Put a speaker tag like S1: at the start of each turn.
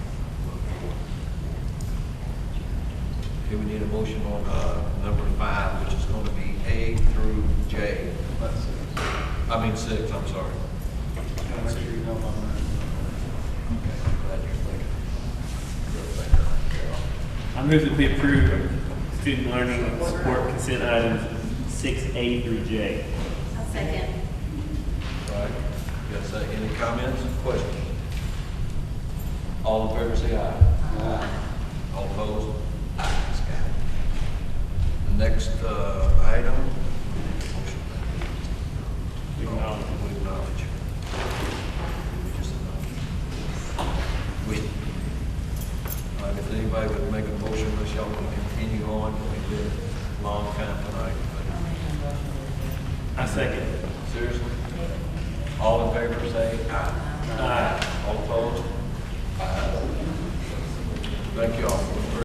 S1: we need a motion on, uh, number five, which is gonna be A through J. I mean six, I'm sorry.
S2: Gotta make sure you know my mind.
S1: Okay, glad you're thinking.
S3: I move that we approve student learning and support consent items six A through J.
S4: I'll second.
S1: All right, you got a second, any comments, questions? All in favor, say aye. All opposed? Aye, it's got it. The next, uh, item.
S3: We acknowledge.
S1: We acknowledge. We just acknowledge. We, all right, if anybody would make a motion, unless y'all want to continue on, we've been a long time tonight.
S3: I second.
S1: but Seriously? All in favor, say aye.
S3: Aye.
S1: All opposed? Aye. Thank you all.